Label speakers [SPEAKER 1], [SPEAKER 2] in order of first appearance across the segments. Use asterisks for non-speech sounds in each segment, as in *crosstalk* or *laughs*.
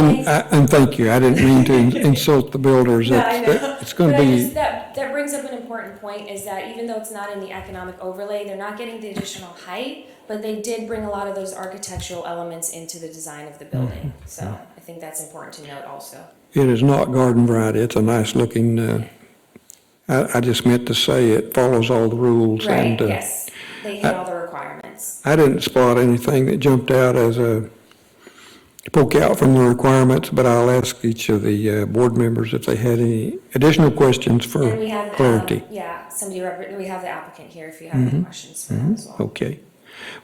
[SPEAKER 1] And Um, I- and thank you, I didn't mean to insult the builders.
[SPEAKER 2] Yeah, I
[SPEAKER 1] It's-
[SPEAKER 2] know.
[SPEAKER 1] It's going to
[SPEAKER 2] But I just,
[SPEAKER 1] be,
[SPEAKER 2] that, that brings up an important point, is that even though it's not in the economic overlay, they're not getting the additional height, but they did bring a lot of those architectural elements into the design of the
[SPEAKER 1] Mm-hmm.
[SPEAKER 2] building, so I think that's important to note also.
[SPEAKER 1] it is not garden variety, it's a nice looking, uh, I, I just meant to say it follows all the rules.
[SPEAKER 2] Right,
[SPEAKER 1] and, uh,
[SPEAKER 2] yes, they hit all the requirements.
[SPEAKER 1] I didn't spot anything that jumped out as a poke out from the requirements, but I'll ask each of the uh, board members if they had any additional questions for
[SPEAKER 2] And we have, um,
[SPEAKER 1] clarity.
[SPEAKER 2] yeah, somebody, rep- we have the applicant here if you have
[SPEAKER 1] Mm-hmm.
[SPEAKER 2] any questions for them as well.
[SPEAKER 1] Okay.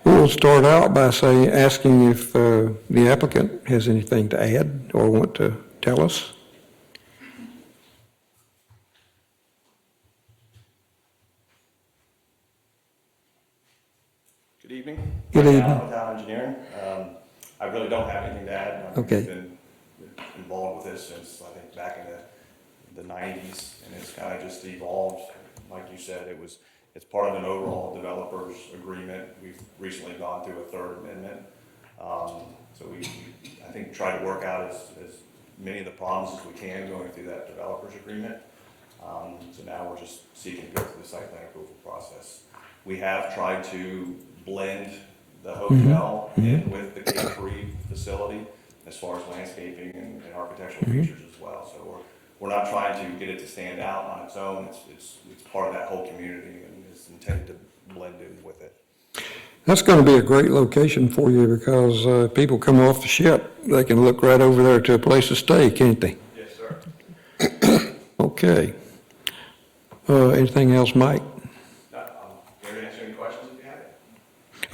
[SPEAKER 1] We'll start out by saying, asking if uh, the applicant has anything to add or want to tell us.
[SPEAKER 3] Good evening.
[SPEAKER 1] Good
[SPEAKER 3] Mike
[SPEAKER 1] evening.
[SPEAKER 3] Allen, Town engineer. Um, I really don't have anything to add.
[SPEAKER 1] Okay.
[SPEAKER 3] I've been involved with this since, I think, back in the, the nineties, and it's kind of just evolved. Like you said, it was, it's part of an overall developers agreement. We've recently gone through a third amendment. Um, so we, we, I think, try to work out as, as many of the problems as we can going through that developers agreement. Um, so now we're just seeking to go through the site plan approval process. We have tried to blend the hotel in with the Cape Free facility as far as landscaping and, and architectural features as well. So we're, we're not trying to get it to stand out on its own. It's, it's, it's part of that whole community and is intended to blend in with it.
[SPEAKER 1] That's going to be a great location for you because uh, people come off the ship, they can look right over there to a place to stay, can't they?
[SPEAKER 3] Yes, sir.
[SPEAKER 1] *clears throat* Okay. Uh, Anything else, Mike?
[SPEAKER 3] Uh, um, Gary, answer any questions if you have?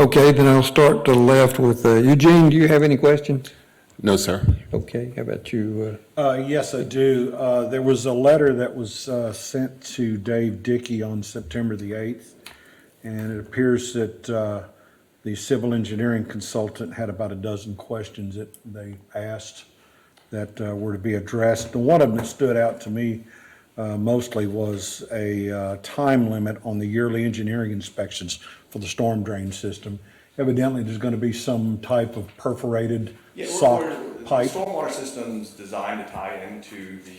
[SPEAKER 1] Okay, then I'll start to the left with uh, Eugene, do you have any questions?
[SPEAKER 4] No, sir.
[SPEAKER 1] Okay, how about you?
[SPEAKER 5] Uh, Yes, I do. Uh, There was a letter that was uh, sent to Dave Dickey on September the 8th, and it appears that uh, the civil engineering consultant had about a dozen questions that they asked that uh, were to be addressed. And one of them that stood out to me uh, mostly was a uh, time limit on the yearly engineering inspections for the storm drain system. Evidently, there's going to be some type of perforated
[SPEAKER 3] Yeah, we're- we're-
[SPEAKER 5] sock
[SPEAKER 3] the
[SPEAKER 5] pipe.
[SPEAKER 3] Stormwater system's designed to tie into the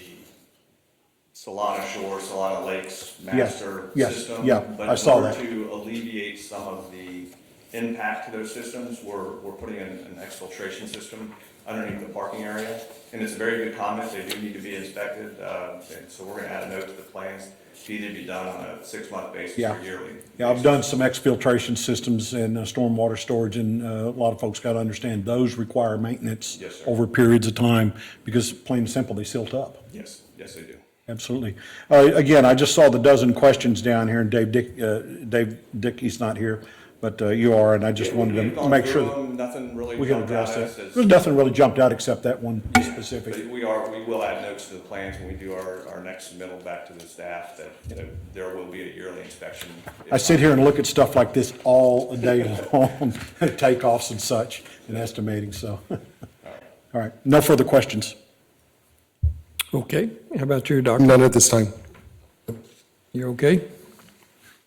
[SPEAKER 3] Solana Shore, Solana Lakes
[SPEAKER 5] Yes,
[SPEAKER 3] master
[SPEAKER 5] yes,
[SPEAKER 3] system.
[SPEAKER 5] yeah, I saw
[SPEAKER 3] But
[SPEAKER 5] that.
[SPEAKER 3] in order to alleviate some of the impact to those systems, we're, we're putting in an exfiltration system underneath the parking area. And it's a very good comment, they do need to be inspected, uh, and so we're gonna add a note to the plans, to either be done on a six-month basis
[SPEAKER 5] Yeah.
[SPEAKER 3] or yearly.
[SPEAKER 5] Yeah, I've done some exfiltration systems and uh, stormwater storage, and uh, a lot of folks got to understand those require maintenance
[SPEAKER 3] Yes, sir.
[SPEAKER 5] over periods of time because plain and simple, they silt up.
[SPEAKER 3] Yes, yes, they do.
[SPEAKER 5] Absolutely. Uh, Again, I just saw the dozen questions down here, and Dave Dick, uh, Dave Dickey's not here, but uh, you are, and I just wanted
[SPEAKER 3] We've
[SPEAKER 5] to
[SPEAKER 3] gone
[SPEAKER 5] make
[SPEAKER 3] through
[SPEAKER 5] sure that
[SPEAKER 3] them, Nothing really.
[SPEAKER 5] we can
[SPEAKER 3] jumped out
[SPEAKER 5] address
[SPEAKER 3] at
[SPEAKER 5] that.
[SPEAKER 3] us as-
[SPEAKER 5] There's nothing really jumped out except that one specific.
[SPEAKER 3] But we are, we will add notes to the plans when we do our, our next submittal back to the staff that, that there will be a yearly inspection.
[SPEAKER 5] I sit here and look at stuff like this all day long, *laughs* takeoffs and such, and estimating, so. *laughs* All right, no further questions.
[SPEAKER 1] uh, Okay, how about you, Doctor?
[SPEAKER 4] None at this time.
[SPEAKER 1] You okay?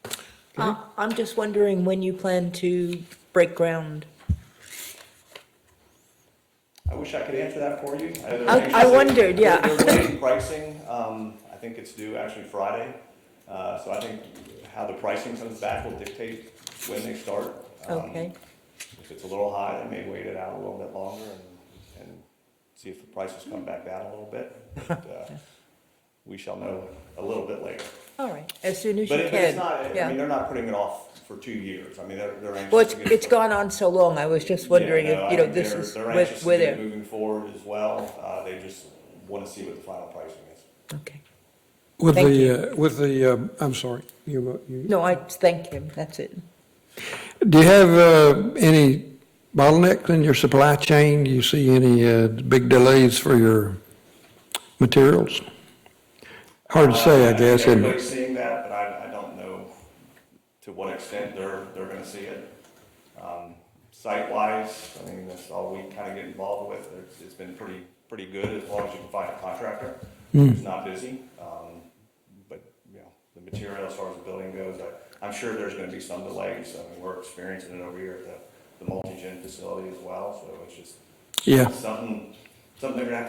[SPEAKER 6] Uh,
[SPEAKER 3] Mm-hmm.
[SPEAKER 6] I'm just wondering when you plan to break ground.
[SPEAKER 3] I wish I could answer that for you. they're
[SPEAKER 6] I- I
[SPEAKER 3] anxious.
[SPEAKER 6] wondered, yeah.
[SPEAKER 3] They're- They're waiting pricing, um, I think it's due actually Friday, uh, so I think how the pricing comes back will dictate when they start. Um,
[SPEAKER 6] Okay.
[SPEAKER 3] If it's a little high, they may wait it out a little bit longer and, and see if the prices come back down a little bit. But, uh, We shall know a little bit later.
[SPEAKER 6] All right, as soon as you
[SPEAKER 3] But
[SPEAKER 6] can.
[SPEAKER 3] it- but it's not, I
[SPEAKER 6] Yeah.
[SPEAKER 3] mean, they're not putting it off for two years. I mean, they're, they're anxious.
[SPEAKER 6] Well, it's,
[SPEAKER 3] to get-
[SPEAKER 6] it's gone on so long, I was just
[SPEAKER 3] Yeah,
[SPEAKER 6] wondering
[SPEAKER 3] no,
[SPEAKER 6] if,
[SPEAKER 3] I
[SPEAKER 6] you know,
[SPEAKER 3] mean,
[SPEAKER 6] this
[SPEAKER 3] they're-
[SPEAKER 6] is,
[SPEAKER 3] They're
[SPEAKER 6] we're-
[SPEAKER 3] anxious
[SPEAKER 6] we're
[SPEAKER 3] to get
[SPEAKER 6] there.
[SPEAKER 3] moving forward as well. Uh, they just want to see what the final pricing is.
[SPEAKER 6] Okay.
[SPEAKER 1] With
[SPEAKER 6] Thank
[SPEAKER 1] the, uh, with the, um, I'm sorry, you, uh, you,
[SPEAKER 6] No, I thank him, that's it.
[SPEAKER 1] do you have uh, any bottlenecks in your supply chain? Do you see any uh, big delays for your materials? Hard to say, I
[SPEAKER 3] think
[SPEAKER 1] guess, isn't it?
[SPEAKER 3] Uh, Everybody's seeing that, but I, I don't know to what extent they're, they're gonna see it. Um, Site-wise, I mean, that's all we kind of get involved with. It's, it's been pretty, pretty good as long as you can find a contractor
[SPEAKER 1] Hmm.
[SPEAKER 3] who's not busy. Um, But, you know, the material as far as the building goes, I, I'm sure there's gonna be some delays. I mean, we're experiencing it over here at the, the multi-gen facility as well, so it's just
[SPEAKER 1] Yeah,
[SPEAKER 3] something, something they're gonna have to